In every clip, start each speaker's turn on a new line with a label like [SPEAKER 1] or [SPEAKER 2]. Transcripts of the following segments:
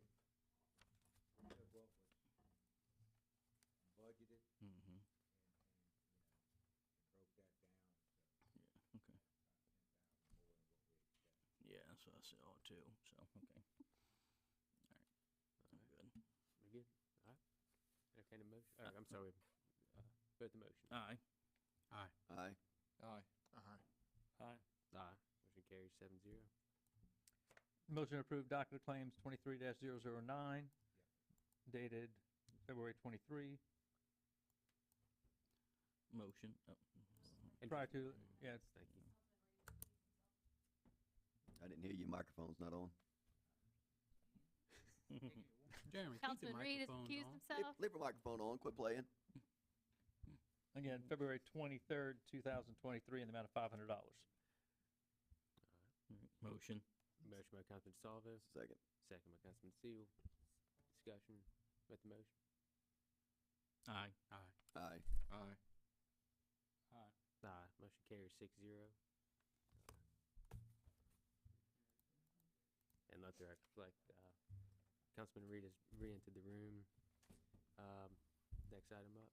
[SPEAKER 1] Mm-hmm. us uh, too, so, okay.
[SPEAKER 2] All
[SPEAKER 1] I'm
[SPEAKER 2] right,
[SPEAKER 1] good.
[SPEAKER 2] we're good. All right. Entertain a motion. Oh, I'm sorry. Uh, vote the motion.
[SPEAKER 1] Aye.
[SPEAKER 3] Aye.
[SPEAKER 4] Aye.
[SPEAKER 2] Aye. Motion carries seven zero.
[SPEAKER 5] Motion to approve docket of claims twenty-three 9 dated February twenty-three,
[SPEAKER 1] Motion. Oh,
[SPEAKER 2] And
[SPEAKER 5] prior to, yeah, it's-
[SPEAKER 2] Thank you.
[SPEAKER 3] I didn't hear your microphone's not on.
[SPEAKER 4] Jeremy, keep the
[SPEAKER 6] Councilman Reed has
[SPEAKER 4] microphones
[SPEAKER 6] accused
[SPEAKER 4] on.
[SPEAKER 3] Leave,
[SPEAKER 6] himself.
[SPEAKER 3] leave your microphone on, quit playing.
[SPEAKER 5] again, February twenty-third, two thousand twenty-three, in the amount of five hundred dollars.
[SPEAKER 1] all right, Motion.
[SPEAKER 2] Motion by Councilman DeSalvo,
[SPEAKER 3] Second.
[SPEAKER 2] second by Councilman Seal. Discussion. Vote the motion.
[SPEAKER 1] Aye.
[SPEAKER 3] Aye.
[SPEAKER 4] Aye. Aye.
[SPEAKER 2] Aye. Motion carries six zero. And let the record reflect, uh, Councilman Reed has re-entered the room. Um, next item up.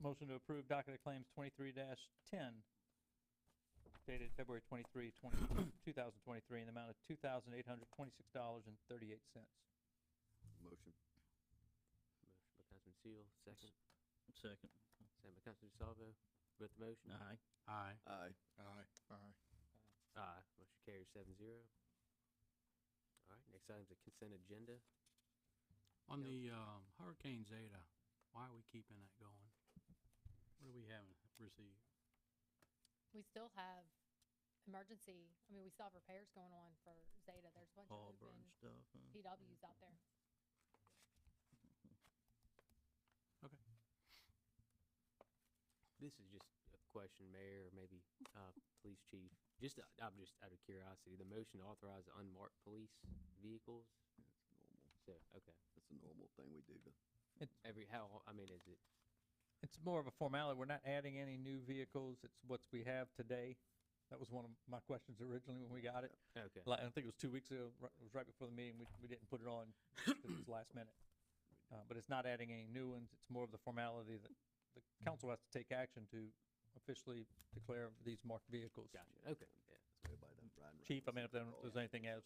[SPEAKER 5] Motion to approve docket of claims twenty-three ten dated February 23, 20 2023, in the amount of two thousand eight hundred twenty-six dollars and thirty-eight cents.
[SPEAKER 3] Motion.
[SPEAKER 2] Motion by Councilman Seal, second.
[SPEAKER 1] Second.
[SPEAKER 2] Second by Councilman DeSalvo. Vote the motion.
[SPEAKER 1] Aye.
[SPEAKER 4] Aye.
[SPEAKER 3] Aye.
[SPEAKER 4] Aye.
[SPEAKER 2] Aye, motion carries seven zero. All right, next item's a consent agenda.
[SPEAKER 4] On
[SPEAKER 2] Yeah.
[SPEAKER 4] the um, Hurricane Zeta, why are we keeping that going? What do we haven't received?
[SPEAKER 6] We still have emergency, I mean, we still have repairs going on for Zeta. There's a bunch of
[SPEAKER 1] Harbor and
[SPEAKER 6] open
[SPEAKER 1] stuff. huh?
[SPEAKER 6] PWs out there.
[SPEAKER 2] This is just a question, Mayor, or maybe, uh, Police Chief. Just, uh, I'm just out of curiosity, the motion to authorize the unmarked police vehicles? So, okay,
[SPEAKER 3] That's a normal thing we do to
[SPEAKER 2] every, how, I mean, is it,
[SPEAKER 5] It's more of a formality. We're not adding any new vehicles. It's what we have today. That was one of my questions originally when we got it.
[SPEAKER 2] okay,
[SPEAKER 5] Like, I think it was two weeks ago, right- it was right before the meeting. We, we didn't put it on just 'cause it was last minute. Uh, but it's not adding any new ones. It's more of the formality that the council has to take action to officially declare these marked vehicles.
[SPEAKER 2] gotcha, okay, yeah.
[SPEAKER 3] everybody done riding around.
[SPEAKER 5] Chief, I
[SPEAKER 3] with
[SPEAKER 5] mean, if there-
[SPEAKER 3] Oh,
[SPEAKER 5] there's anything else,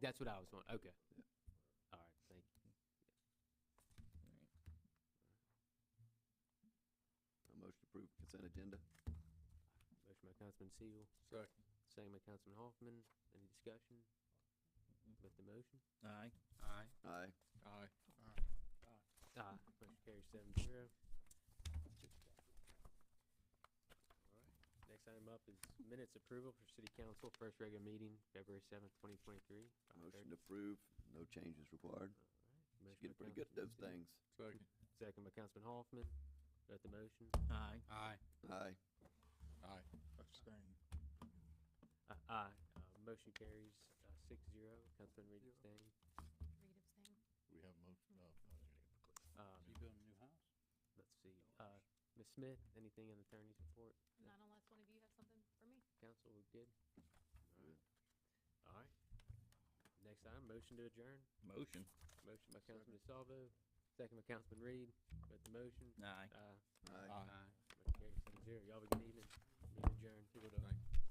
[SPEAKER 2] That's what I was wondering, okay. All right, thank you.
[SPEAKER 3] A motion to approve consent agenda.
[SPEAKER 2] Motion by Councilman Seal,
[SPEAKER 4] Second.
[SPEAKER 2] second by Councilman Hoffman. Any discussion with the motion?
[SPEAKER 1] Aye.
[SPEAKER 4] Aye.
[SPEAKER 3] Aye.
[SPEAKER 4] Aye.
[SPEAKER 2] Aye, motion carries seven zero. Alright, Next item up is minutes approval for city council, first regular meeting, February seventh, twenty twenty-three.
[SPEAKER 3] Motion to approve. No changes required. She's getting pretty good at those things.
[SPEAKER 4] Second.
[SPEAKER 2] Second by Councilman Hoffman, Vote the motion,
[SPEAKER 1] Aye.
[SPEAKER 4] Aye.
[SPEAKER 3] Aye.
[SPEAKER 4] Aye.
[SPEAKER 2] uh, aye, uh, motion carries, uh, six zero, Councilman Reed abstained.
[SPEAKER 6] Reed abstained.
[SPEAKER 7] We have motion, uh,
[SPEAKER 2] Uh,
[SPEAKER 4] You building a new house?
[SPEAKER 2] let's see, uh, Ms. Smith, anything in the attorney's report?
[SPEAKER 6] Not unless one of you have something for me.
[SPEAKER 2] Council, we good? Alright, next item, motion to adjourn.
[SPEAKER 1] Motion.
[SPEAKER 2] Motion by Councilman DeSalvo, second by Councilman Reed, with the motion.
[SPEAKER 1] Aye.
[SPEAKER 2] Uh,
[SPEAKER 3] Aye.
[SPEAKER 4] Aye.
[SPEAKER 2] motion carries seven zero. Y'all have a good evening. Meeting adjourned.
[SPEAKER 4] Thank-